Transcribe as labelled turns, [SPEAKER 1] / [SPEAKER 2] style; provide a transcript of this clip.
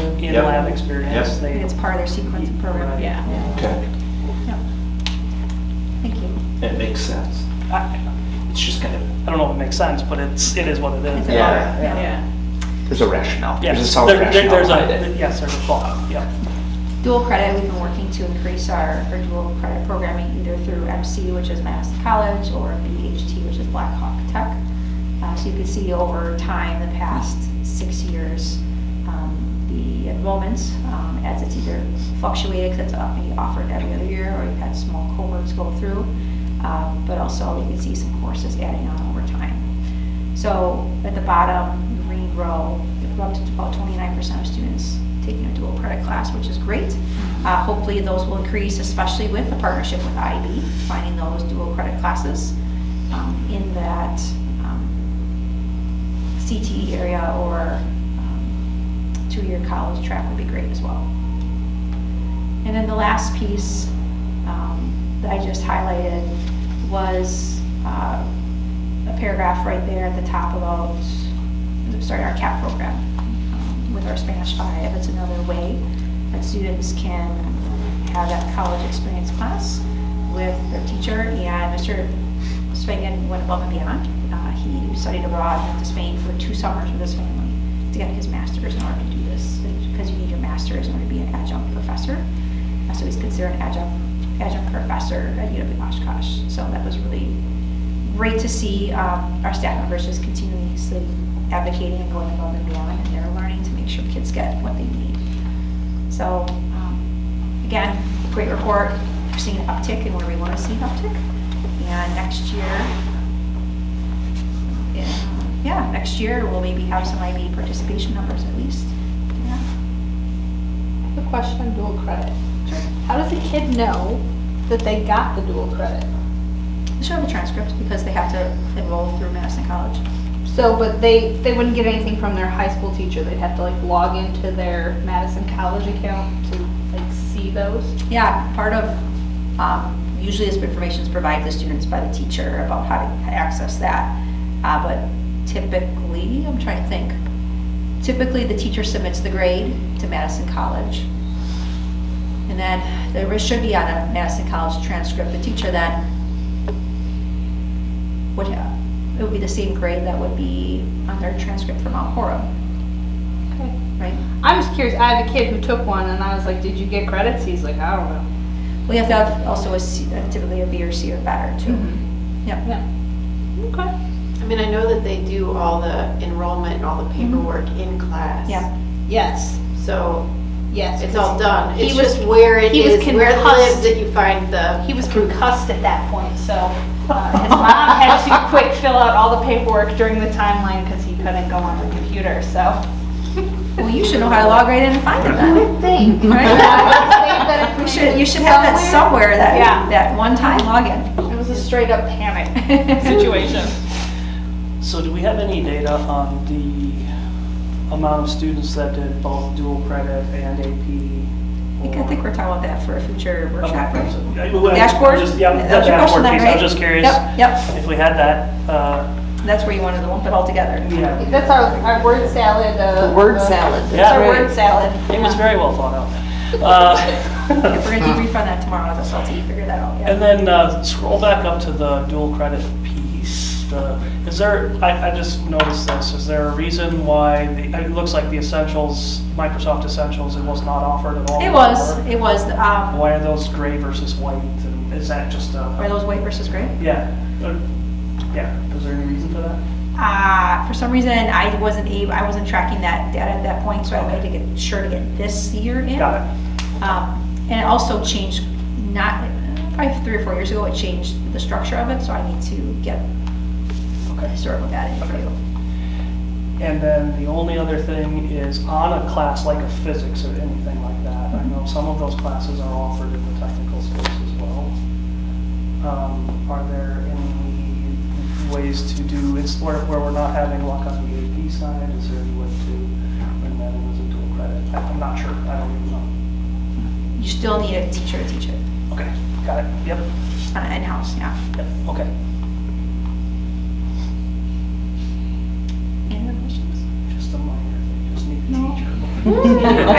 [SPEAKER 1] in
[SPEAKER 2] Yep.
[SPEAKER 1] lab experience.
[SPEAKER 2] Yep.
[SPEAKER 1] They
[SPEAKER 3] It's part of their sequence of program.
[SPEAKER 4] Yeah.
[SPEAKER 2] Okay.
[SPEAKER 3] Yep. Thank you.
[SPEAKER 2] It makes sense.
[SPEAKER 1] I
[SPEAKER 2] It's just kind of,
[SPEAKER 1] I don't know if it makes sense, but it's, it is what it is.
[SPEAKER 3] It's a-
[SPEAKER 2] Yeah.
[SPEAKER 4] Yeah.
[SPEAKER 2] there's a rationale. There's a
[SPEAKER 1] Yes,
[SPEAKER 2] solid
[SPEAKER 1] there- there-
[SPEAKER 2] rationale
[SPEAKER 1] there's
[SPEAKER 2] behind
[SPEAKER 1] a,
[SPEAKER 2] it.
[SPEAKER 1] yes, there's a thought, yeah.
[SPEAKER 3] Dual credit, we've been working to increase our, our dual credit programming either through MC, which is Madison College, or BHT, which is Black Hawk Tech. Uh, so you can see over time, the past six years, um, the enrollments, um, as it's either fluctuated, because it's up- maybe offered every other year, or you've had small cohorts go through. Um, but also, you can see some courses adding on over time. So at the bottom, the green row, we're up to about 29% of students taking a dual credit class, which is great. Uh, Hopefully, those will increase, especially with the partnership with IB, finding those dual credit classes um, in that um, CTE area or um, two-year college track would be great as well. And then the last piece um, that I just highlighted was uh, a paragraph right there at the top about, sorry, our CAP program um, with our Spanish 5. It's another way that students can have that college experience class with their teacher. And Mr. Spangen went above and beyond. Uh, He studied abroad, went to Spain for two summers with his family to get his master's in order to do this, because you need your master's in order to be an adjunct professor. Uh, So he's considered an adjunct, adjunct professor at UW Oshkosh. So that was really great to see um, our staff members just continuously advocating and going above and beyond in their learning to make sure kids get what they need. So, um, again, great report, we're seeing an uptick in where we want to see an uptick. And next year, yeah, yeah, next year, we'll maybe have some IB participation numbers at least. Yeah.
[SPEAKER 5] A question on dual credit. How does a kid know that they got the dual credit?
[SPEAKER 3] They should have a transcript because they have to enroll through Madison College.
[SPEAKER 5] So, but they, they wouldn't get anything from their high school teacher. They'd have to like log into their Madison College account to like see those.
[SPEAKER 3] Yeah, part of, um, usually this information is provided to students by the teacher about how to access that. Uh, But typically, I'm trying to think, typically the teacher submits the grade to Madison College. And then there should be on a Madison College transcript, the teacher then would, ha- it would be the same grade that would be on their transcript from Mount Horeb,
[SPEAKER 5] Okay.
[SPEAKER 3] right?
[SPEAKER 5] I'm just curious. I have a kid who took one and I was like, did you get credits? He's like, I don't know.
[SPEAKER 3] We have to have also a C- typically a B or C or better too.
[SPEAKER 1] Mm-hmm.
[SPEAKER 3] Yep.
[SPEAKER 5] Yeah. Okay.
[SPEAKER 4] I mean, I know that they do all the enrollment and all the
[SPEAKER 5] Mm-hmm.
[SPEAKER 4] paperwork in class.
[SPEAKER 3] Yeah.
[SPEAKER 5] Yes,
[SPEAKER 4] So
[SPEAKER 5] yes.
[SPEAKER 4] it's all done.
[SPEAKER 5] He
[SPEAKER 4] It's
[SPEAKER 5] was-
[SPEAKER 4] just where it
[SPEAKER 5] he was
[SPEAKER 4] is, where it lives
[SPEAKER 5] concussed.
[SPEAKER 4] that you find the.
[SPEAKER 5] He was concussed at that point, so uh, his mom had to quick fill out all the paperwork during the timeline because he couldn't go on the computer, so.
[SPEAKER 3] Well, you should know how to log right in and find it then.
[SPEAKER 5] think,
[SPEAKER 3] right?
[SPEAKER 5] right?
[SPEAKER 3] You should, you should have that somewhere,
[SPEAKER 5] Yeah.
[SPEAKER 3] that, that one-time login.
[SPEAKER 5] It was a straight up panic
[SPEAKER 3] Situation.
[SPEAKER 1] So do we have any data on the amount of students that did both dual credit and
[SPEAKER 3] I
[SPEAKER 1] AP?
[SPEAKER 3] think, I think we're talking about that for a future workshop, right? Dashboard?
[SPEAKER 1] Dashboard? Yeah, the
[SPEAKER 3] That's your question
[SPEAKER 1] dashboard
[SPEAKER 3] then,
[SPEAKER 1] piece, I
[SPEAKER 3] right?
[SPEAKER 1] was just curious
[SPEAKER 3] Yep, yep,
[SPEAKER 1] if we had that, uh,
[SPEAKER 3] that's where you wanted to lump it all together.
[SPEAKER 1] yeah.
[SPEAKER 5] That's our, our word salad, uh.
[SPEAKER 6] Word
[SPEAKER 5] uh,
[SPEAKER 6] salad.
[SPEAKER 5] It's our
[SPEAKER 1] Yeah.
[SPEAKER 5] word salad.
[SPEAKER 1] It was
[SPEAKER 5] Yeah.
[SPEAKER 1] very well thought out. Uh,
[SPEAKER 3] If we're gonna debrief on that tomorrow, that's all, you figure that out, yeah.
[SPEAKER 1] And then uh, scroll back up to the dual credit piece. The- Is there, I, I just noticed this, is there a reason why, the it looks like the Essentials, Microsoft Essentials, it was not offered at all?
[SPEAKER 3] It was, it was, um,
[SPEAKER 1] Why are those gray versus white? And Is that just a?
[SPEAKER 3] are those white versus gray?
[SPEAKER 1] Yeah. Uh, Yeah, is there any reason for that?
[SPEAKER 3] Uh, for some reason, I wasn't able, I wasn't tracking that data at that point, so I made to get, sure to get this year in.
[SPEAKER 1] Got it.
[SPEAKER 3] Um, And it also changed, not, probably three or four years ago, it changed the structure of it, so I need to get the historical data in for you.
[SPEAKER 1] And then the only other thing is on a class like a physics or anything like that. I know some of those classes are offered in the technical space as well. Um, Are there any ways to do, it's where where we're not having luck on the AP side, is there any way to bring that in as a dual credit? I- I'm not sure, I don't even
[SPEAKER 3] You still need a teacher to teach it,
[SPEAKER 1] know. Okay, got it, yep,
[SPEAKER 3] It's not in-house, yeah.
[SPEAKER 1] yep, okay.
[SPEAKER 3] Any other questions?
[SPEAKER 1] Just a minor, thing. just need a
[SPEAKER 3] No.
[SPEAKER 1] teacher.